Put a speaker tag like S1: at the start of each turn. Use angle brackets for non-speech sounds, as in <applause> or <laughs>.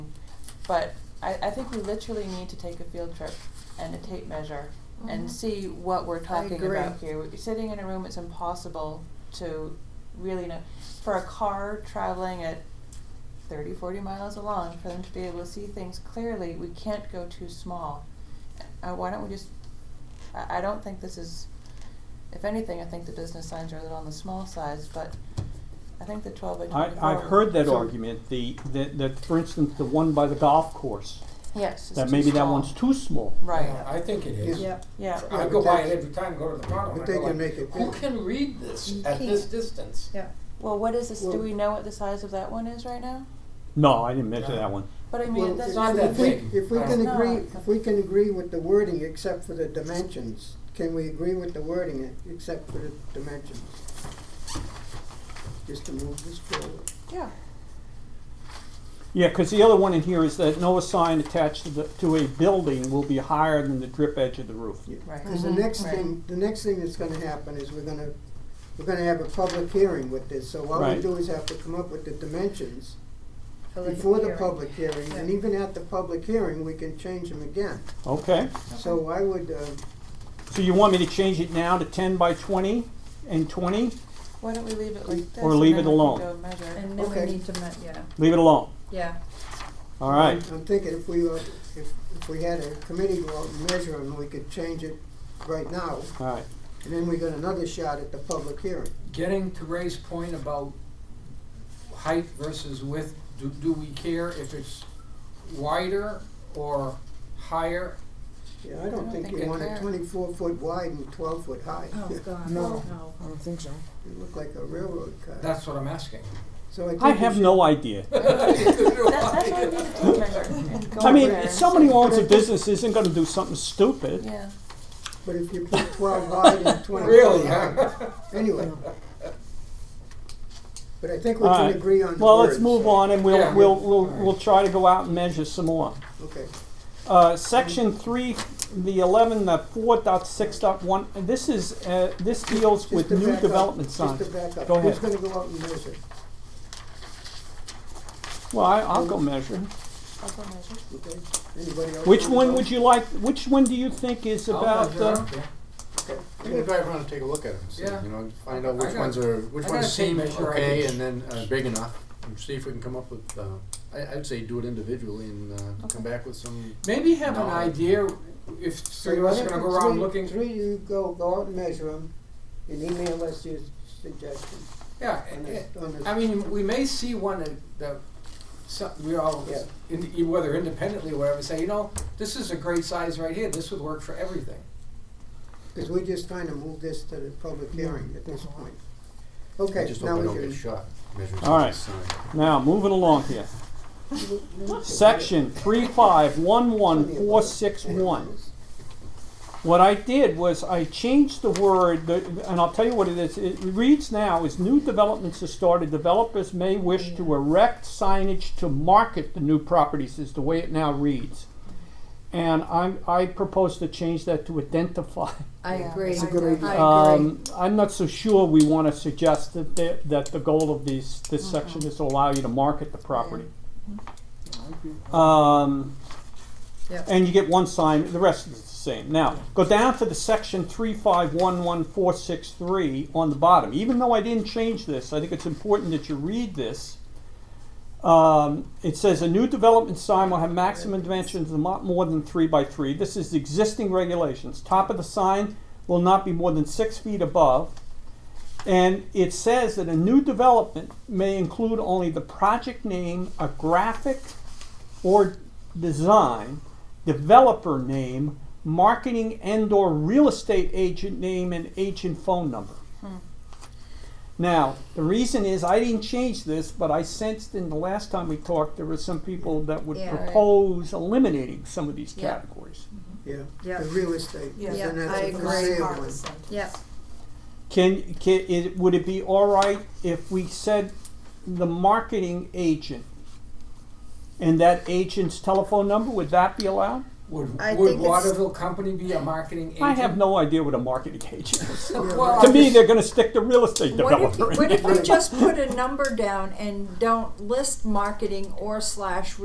S1: But I, I think we literally need to take a field trip and a tape measure
S2: Mhm.
S1: and see what we're talking
S3: agree.
S1: about here. We're Sitting in a room, it's impossible to really know. For a car traveling at 30, 40 miles along, for them to be able to see things clearly, we can't go too small. Uh, why don't we just, I, I don't think this is, if anything, I think the business signs are a little on the small size, but I think the 12 by
S4: I,
S1: 24.
S4: I've heard that
S3: So-
S4: argument, the, that, that, for instance, the one by the golf course,
S1: Yes, it's
S4: that
S1: too
S4: maybe that
S1: small.
S4: one's too small.
S1: Right,
S5: I think it is.
S3: Yeah.
S1: yeah.
S5: I go by it every time, go to the bottom.
S3: But they can make it
S5: Who
S3: big.
S5: can read this
S3: You
S5: at this
S3: can't.
S5: distance?
S3: Yeah.
S1: Well, what is this? Do
S3: Well-
S1: we know what the size of that one is right now?
S4: No, I didn't measure
S5: Yeah.
S4: that one.
S1: But I
S3: Well,
S1: mean, that's
S5: it's not
S1: really
S5: that
S3: If we,
S5: big.
S3: if we can
S1: No.
S3: agree, if we can agree with the wording except for the dimensions, can we agree with the wording except for the dimensions? Just to move this forward.
S1: Yeah,
S4: Yeah, because the other one in here is that no sign attached to the, to a building will be higher than the drip edge of the roof.
S1: right.
S3: Because the next
S1: Right.
S3: thing, the next thing that's gonna happen is we're gonna, we're gonna have a public hearing with this, so what we
S4: Right.
S3: do is have to come up with the dimensions
S2: For
S3: before the
S2: hearing.
S3: public hearing, and
S2: Yeah.
S3: even at the public hearing, we can change them again.
S4: Okay,
S3: So I would, uh,
S4: so you want me to change it now to ten by twenty and twenty?
S1: Why don't we leave it like this?
S4: Or
S1: and
S4: leave
S1: then
S4: it
S1: we can
S4: alone.
S1: Go measure.
S2: And then we
S3: Okay.
S2: need to, ma- yeah,
S4: Leave it alone,
S2: yeah.
S4: all right.
S3: I'm thinking if we, uh, if, if we had a committee go out and measure them, we could change it right now,
S4: All right,
S3: and then we got another shot at the public hearing.
S5: Getting to Ray's point about height versus width, do, do we care if it's wider or higher?
S3: Yeah, I don't think
S1: think
S3: you
S1: I
S3: want it
S1: care.
S3: twenty-four foot wide and twelve foot high.
S2: Oh, God,
S6: No.
S2: no.
S6: I don't think so.
S3: <laughs> You look like a railroad car.
S5: That's what I'm
S3: <laughs>
S5: asking.
S3: So I think
S4: I
S3: we
S4: have
S3: should-
S4: no idea.
S1: That's, that's why we need to tape measure and
S5: <laughs>
S1: go
S4: I mean,
S1: over
S4: if
S1: and
S4: somebody
S1: see.
S4: who owns a business isn't gonna do something stupid.
S1: Yeah,
S3: But if you put twelve wide
S4: <laughs>
S3: and twenty-four
S5: Really,
S3: high,
S5: huh?
S3: anyway.
S5: <laughs>
S3: But I think we
S4: All
S3: can
S4: right.
S3: agree on the words.
S4: Well, let's move on and we'll,
S5: Yeah.
S4: we'll, we'll,
S5: All right.
S4: we'll try to go out and measure some more.
S3: Okay,
S4: Uh, section three, the eleven, the four dot six dot one, this is, uh, this deals
S3: just
S4: with
S3: to back
S4: new
S3: up,
S4: development
S3: just
S4: signs.
S3: to back up,
S4: Go
S3: who's
S4: ahead.
S3: gonna go out and measure?
S4: Well, I, I'll go measure.
S1: I'll go measure.
S3: Okay, anybody else?
S4: Which
S3: wanna
S4: one
S3: go?
S4: would you like, which one do you think is
S5: <laughs> I'll
S4: about,
S5: measure, I
S4: uh,
S5: don't care.
S7: I'm gonna drive around and take a look at them, see,
S5: Yeah.
S7: you know, find out
S5: I
S7: which
S5: got-
S7: ones are, which
S5: I got a
S7: ones seem
S5: tape measure I
S7: okay
S5: can-
S7: and then, uh, big enough, and see if we can come up with, uh, I, I'd say do it individually and, uh,
S1: Okay.
S7: come back with some,
S5: Maybe have an
S7: No.
S5: idea if
S3: So
S5: three of us are gonna go around looking.
S3: Three, three, you go, go out and measure them, and email us your suggestions
S5: Yeah,
S3: on
S5: and-
S3: this, on this.
S5: Eh, I mean, we may see one that, that some, we all,
S3: Yeah.
S5: in, whether independently or whatever, say, you know, this is a great size right here. This would work for everything.
S3: Cause we're just trying to move this to the public hearing at this point.
S7: I
S3: Okay,
S7: just
S3: now
S7: hope I
S3: we
S7: don't
S3: can.
S7: get shot, measuring
S4: All right.
S7: somebody's sign.
S4: now, moving along here.
S3: move to-
S4: Section three five one one four six one. What I did was I changed the word, the- and I'll tell you what it is. It reads now as new developments are started, developers may wish to erect signage to market the new properties, is the way it now reads. And I'm, I propose to change that to identify.
S6: I
S1: Yeah.
S6: agree.
S1: It's a good idea.
S6: <laughs> I agree.
S4: Um, I'm not so sure we wanna suggest that, the- that the goal of these, this section is to allow you to market the property. Um,
S2: Yep.
S4: and you get one sign, the rest is the same. Now, go down to the section three five one one four six three on the bottom. Even though I didn't change this, I think it's important that you read this. Um, it says a new development sign will have maximum dimensions of not more than three by three. This is existing regulations. Top of the sign will not be more than six feet above. And it says that a new development may include only the project name, a graphic or design, developer name, marketing and or real estate agent name and agent phone number. Now, the reason is I didn't change this, but I sensed in the last time we talked, there were some people that would
S2: Yeah. Right.
S4: propose eliminating some of these
S1: Yeah.
S4: categories.
S3: Yeah,
S2: Yeah.
S3: the real estate,
S6: Yeah.
S3: then
S2: Yeah,
S3: that's
S2: I
S3: a
S2: agree.
S3: for sale one.
S2: Yep,
S4: Can, can, it, would it be all right if we said the marketing agent and that agent's telephone number, would that be allowed?
S5: Would,
S2: I
S5: would
S2: think it's-
S5: Waterville Company be a marketing agent?
S4: I have no idea what a marketing <laughs> agent is.
S5: Well,
S4: To
S5: I'm
S4: me,
S5: just-
S4: they're gonna stick to real estate
S6: What if,
S4: developer. in
S6: what if
S4: there.
S6: we just put a number down and don't list marketing or slash